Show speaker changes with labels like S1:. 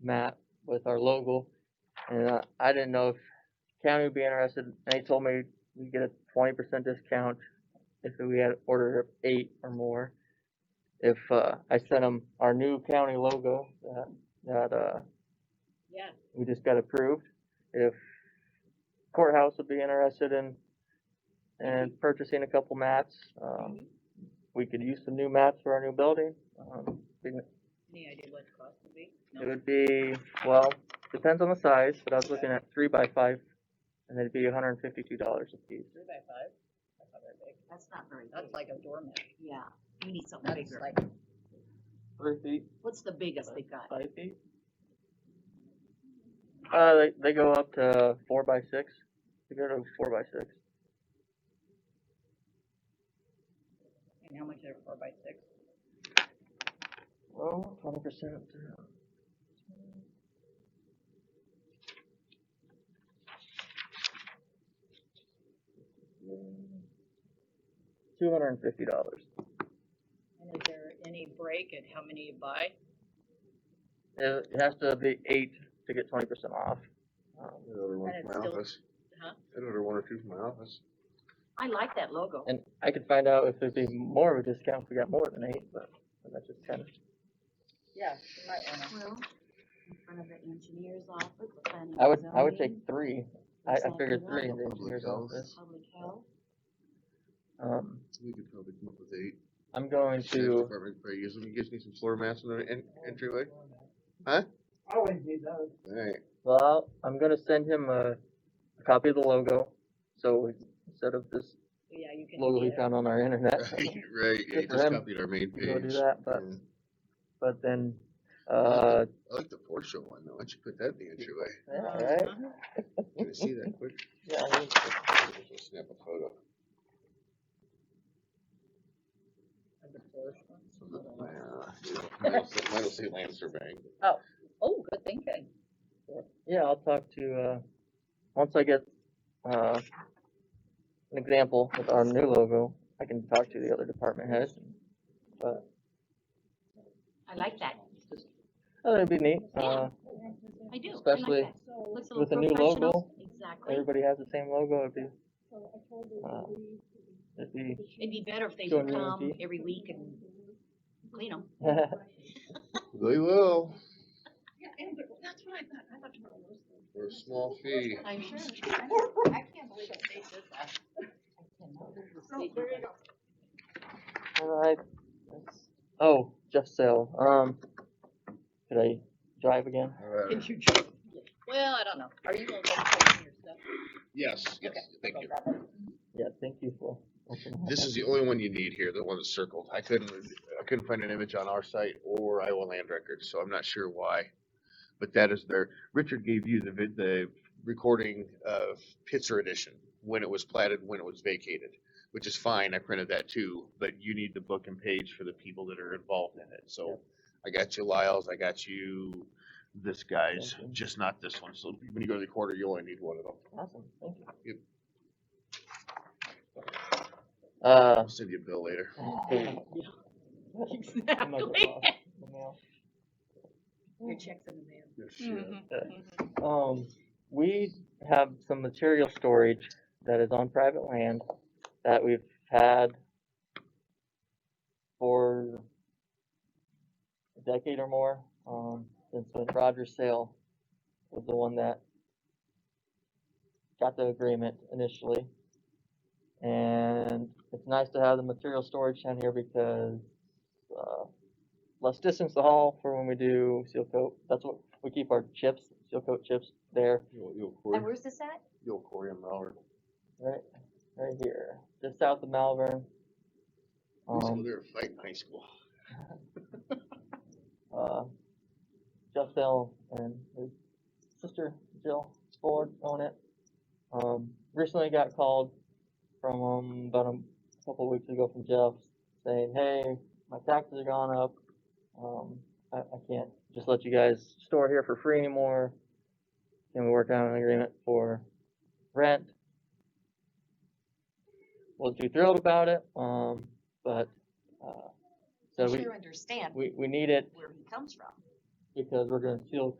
S1: map with our logo. And uh, I didn't know if county would be interested, and they told me we get a twenty percent discount if we had ordered eight or more. If, uh, I sent them our new county logo that, that, uh,
S2: Yeah,
S1: we just got approved. If courthouse would be interested in, in purchasing a couple mats, um,
S2: Mhm.
S1: we could use some new mats for our new building. Um, we-
S2: any idea what the cost would be?
S1: It
S2: No,
S1: would be, well, depends on the size, but I was looking at three by five, and it'd be hundred and fifty-two dollars a piece.
S2: three by five, that's not very big,
S3: That's not very big.
S2: that's like a doormat,
S3: Yeah, we need something
S2: that's
S3: bigger.
S2: like,
S1: Three feet?
S3: What's the biggest they've got?
S1: Five feet? Uh, they, they go up to four by six, they go to four by six.
S2: and how much are four by six?
S1: Well, twenty percent. Two hundred and fifty dollars.
S2: And is there any break at how many you buy?
S1: It it has to be eight to get twenty percent off. Um,
S4: I ordered one
S2: And
S4: from
S2: it's
S4: my
S2: still-
S4: office.
S2: Huh?
S4: I ordered one or two from my office.
S3: I like that logo.
S1: And I could find out if there'd be more of a discount if we got more than eight, but that's just kind of.
S2: Yeah, you might wanna,
S3: Well, in front of the engineer's office, the planning.
S1: I would,
S3: and
S1: I would take
S3: zoning,
S1: three. I, I
S3: Looks like
S1: figured
S3: we
S1: three in
S3: want
S1: the
S4: public
S1: engineer's
S4: health.
S1: office.
S3: Public health.
S1: Um,
S4: We could probably come up with eight.
S1: I'm going
S4: Sheriff's
S1: to,
S4: Department could probably use them. You guys need some floor mats in the en- entryway?
S5: I wouldn't do those.
S4: Alright,
S1: well, I'm gonna send him a, a copy of the logo. So instead of this
S2: yeah, you can.
S1: logo we
S2: get it.
S1: found on our internet,
S4: right, right, yeah,
S1: Good
S4: you
S1: for
S4: just
S1: them.
S4: copied our main
S1: we go do
S4: page.
S1: that, but,
S4: Yeah.
S1: but then, uh,
S4: I like the Porsche one though, why don't you put that in the entryway?
S1: yeah, right?
S2: Uh-huh.
S4: Can I see that quick?
S1: Yeah, I mean,
S4: Just Snap a photo.
S2: And the Porsche ones,
S4: Yeah,
S2: hold on.
S4: you know, Mine'll say- mine'll say Lancer Bank.
S2: Oh, good thinking,
S1: Yeah, I'll talk to, uh, once I get, uh, an example with our new logo, I can talk to the other department heads. But,
S3: I like that.
S1: oh, that'd be neat,
S3: Yeah.
S1: uh,
S3: I do. I like
S1: Especially
S3: that. Looks a
S1: with
S3: little
S1: the new logo,
S3: professional. Exactly.
S1: everybody has the same logo, it'd be, uh, it'd be,
S3: It'd be better if they
S1: Join me,
S3: would come
S1: Auntie.
S3: every week and clean them.
S4: They will,
S6: Yeah, and they're- that's what I thought, I thought tomorrow was. Thursday.
S4: for a small fee.
S3: I'm sure.
S6: I can't believe that they did that. So, there you go.
S1: alright. Oh, just so, um, could I drive again?
S4: Alright,
S2: could you just, well, I don't know, are you gonna go check your stuff?
S4: yes, yes,
S2: Okay,
S4: thank
S2: go
S4: you.
S2: grab it.
S1: Yeah, thank you for. opening
S4: This
S1: that.
S4: is the only one you need here, the one that's circled. I couldn't, I couldn't find an image on our site or Iowa Land Records, so I'm not sure why. But that is there. Richard gave you the vid, the recording of Pitzer Edition, when it was platted, when it was vacated, which is fine. I printed that too, but you need the book and page for the people that are involved in it. So I got you Lyle's, I got you this guy's,
S1: Okay.
S4: just not this one. So when you go to the quarter, you only need one of them.
S1: Awesome, thank you.
S4: Yep.
S1: Uh,
S4: I'll send you a bill later.
S2: Exactly.
S6: Your checks in the mail. Mm-hmm.
S3: Mm-hmm.
S2: Mhm,
S1: Yeah.
S2: mhm.
S1: Um, we have some material storage that is on private land that we've had for a decade or more, um, since when Rogers Sale was the one that got the agreement initially. And it's nice to have the material storage down here because, uh, less distance to haul for when we do seal coat. That's what, we keep our chips, seal coat chips there,
S4: You'll, you'll
S3: And
S4: Cory,
S3: where's this at?
S4: you'll Cory and Mallard.
S1: right, right here, just south of Malvern.
S4: Um,
S1: Um,
S4: they're fighting high school.
S1: uh, Jeff Bell and his sister Jill Ford own it. Um, recently got called from um, about a couple weeks ago from Jeff saying, "Hey, my taxes are gone up. Um, I, I can't just let you guys store here for free anymore. Can we work out an agreement for rent?" Wasn't too thrilled about it, um, but uh, so
S3: You
S1: we,
S3: sure understand
S1: we we need it
S3: where he comes from.
S1: because we're gonna seal